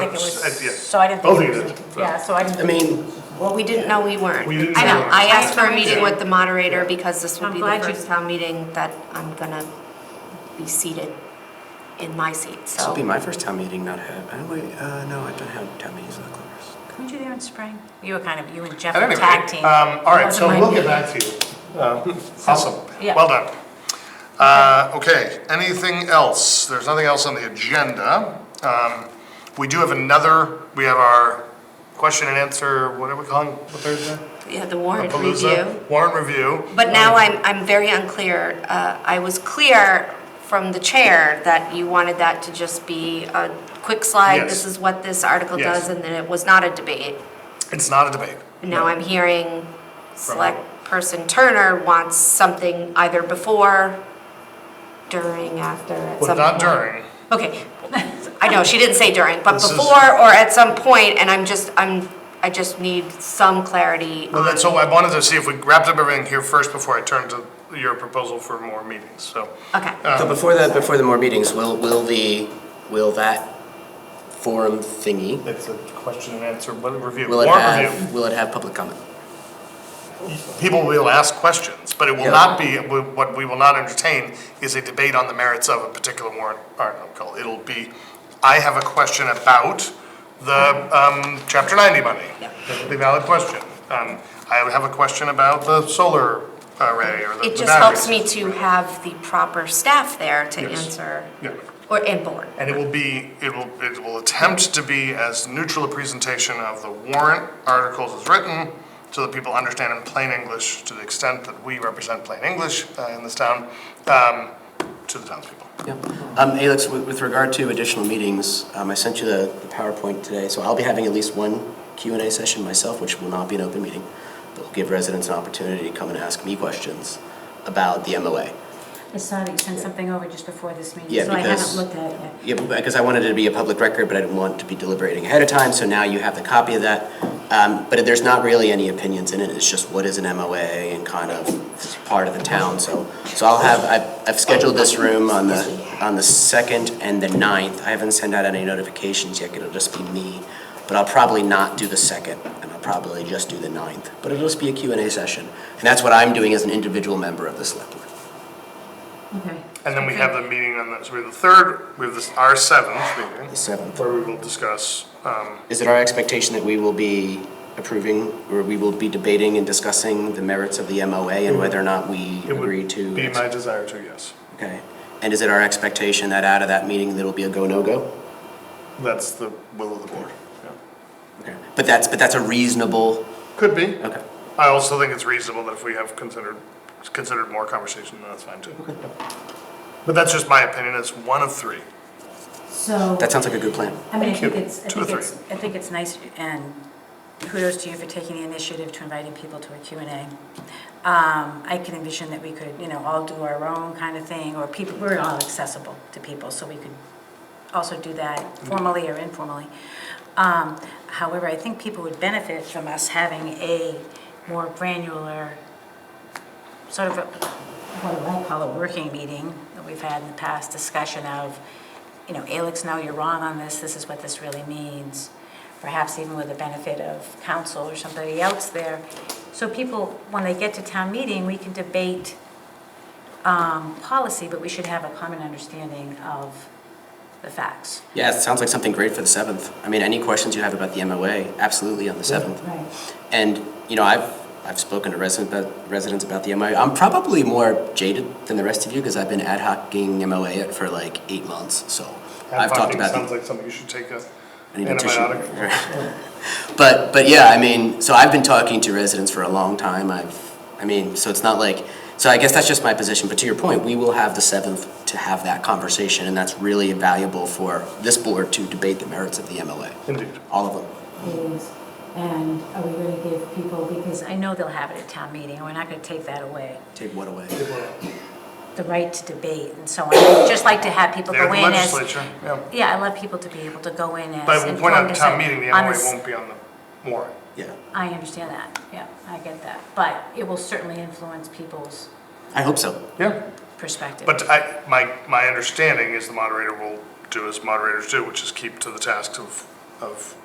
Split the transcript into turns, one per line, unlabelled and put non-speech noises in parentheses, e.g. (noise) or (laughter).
think it
s- uh, yeah.
was, so I didn't
Both
think
of
it
you
was,
did. so.
yeah, so I didn't.
I mean,
Well, we didn't
No, we weren't.
We didn't
I know,
know.
I asked for a meeting
Yeah.
with the moderator because this will
I'm
be the
glad you-
first town meeting that I'm gonna be seated in my seat,
this will be
so.
my first town meeting, not have, oh wait, uh, no, I've done have town meetings in the Clippers.
Weren't you there in spring? You were kind of, you and Jeff
At
were
any
tag
rate,
team.
um, all right, so
Wasn't my
we'll get
meeting.
back to you. Uh, (laughs) Awesome,
yeah.
well done. Uh, okay, anything else? There's nothing else on the agenda. Um, we do have another, we have our question and answer, what are we calling, the Thursday?
Yeah, the warrant
Palooza?
review.
Warrant review.
But now I'm, I'm very unclear. Uh, I was clear from the chair that you wanted that to just be a quick slide.
Yes.
This is what this article
Yes.
does, and that it was not a debate.
It's not a debate.
Now I'm hearing select person Turner wants something either before, during, after, at
But
some
not
point.
during.
Okay, (laughs) I know, she didn't say during, but
This is-
before or at some point, and I'm just, I'm, I just need some clarity
Well,
on,
that's, so I wanted to see if we wrapped up everything here first before I turn to your proposal for more meetings, so.
okay.
Uh,
So before that, before the more meetings, will, will the, will that forum thingy,
It's a question and answer, what, review,
will it
warrant review.
have, will it have public comment?
People will ask questions, but it will
Yeah.
not be, what we will not entertain is a debate on the merits of a particular warrant article. It'll be, I have a question about the, um, chapter ninety money. That would be a valid question. Um, I would have a question about the solar array or the the
It
batteries.
just helps me to have the proper staff there to
Yes.
answer,
Yeah.
or, and board.
And it will be, it will, it will attempt to be as neutral a presentation of the warrant articles as written, so that people understand in plain English, to the extent that we represent plain English uh, in this town, um, to the townspeople.
Yeah. Um, Alex, with, with regard to additional meetings, um, I sent you the the PowerPoint today, so I'll be having at least one Q and A session myself, which will not be an open meeting. But will give residents an opportunity to come and ask me questions about the MOA.
I saw that you sent something over just before this
Yeah,
meeting, so I haven't
because-
looked at it yet.
Yeah, because I wanted it to be a public record, but I didn't want to be deliberating ahead of time, so now you have the copy of that. Um, but there's not really any opinions in it, it's just what is an MOA and kind of it's part of the town, so. So I'll have, I've, I've scheduled this room on the, on the second and the ninth. I haven't sent out any notifications yet, it'll just be me. But I'll probably not do the second, and I'll probably just do the ninth. But it'll just be a Q and A session, and that's what I'm doing as an individual member of the select board.
Okay.
And then we have the meeting on the, so we have the third, we have this, our seventh meeting,
The seventh.
where we will discuss, um,
Is it our expectation that we will be approving, or we will be debating and discussing the merits of the MOA and whether or not we
Mm-hmm. it would
agree to?
be my desire to, yes.
Okay. And is it our expectation that out of that meeting, there'll be a go, no-go?
That's the will of the board. yeah.
Okay. But that's, but that's a reasonable,
Could be.
okay.
I also think it's reasonable that if we have considered, considered more conversation, then that's fine too. But that's just my opinion, it's one of three.
So,
That sounds like a good plan.
I mean, I
Thank you.
think it's, I
Two or
think it's, I think it's nice, and kudos to you for taking the initiative to inviting people to a Q and A. Um, I can envision that we could, you know, all do our own kind of thing, or people, we're all accessible to people, so we could also do that
Mm-hmm.
formally or informally. Um, however, I think people would benefit from us having a more granular sort of, a- what I won't call a working meeting that we've had in the past, discussion of, you know, Alex, no, you're wrong on this, this is what this really means. Perhaps even with the benefit of counsel or somebody else there. So people, when they get to town meeting, we can debate um, policy, but we should have a common understanding of the facts.
Yeah, it sounds like something great for the seventh. I mean, any questions you have about the MOA, absolutely on the seventh.
Right.
And, you know, I've, I've spoken to residents about, residents about the MOA. I'm probably more jaded than the rest of you because I've been ad hocing MOA it for like eight months, so. I've talked
Advocating
about. the-
Sounds like something you should take a
I need a tissue.
antibiotic for.
(laughs) But, but yeah, I mean, so I've been talking to residents for a long time. I've, I mean, so it's not like, so I guess that's just my position. But to your point, we will have the seventh to have that conversation, and that's really valuable for this board to debate the merits of the MOA,
Indeed.
all of them.
meetings, and are we going to give people, because I know they'll have it at town meeting, and we're not going to take that away,
Take what away?
the right to debate and so on. I'd Just like to have people
They're
go
the
in as.
legislature, yeah.
Yeah, I love people to be able to go in as.
But we'll point out
informed
at
as
town
a-
meeting, the
on a
MOA
s-
won't be on the warrant.
Yeah.
I understand that, yeah, I get that, but it will certainly influence people's
I hope so.
Yeah.
perspective.
But I, my, my understanding is the moderator will do as moderators do, which is keep to the task of of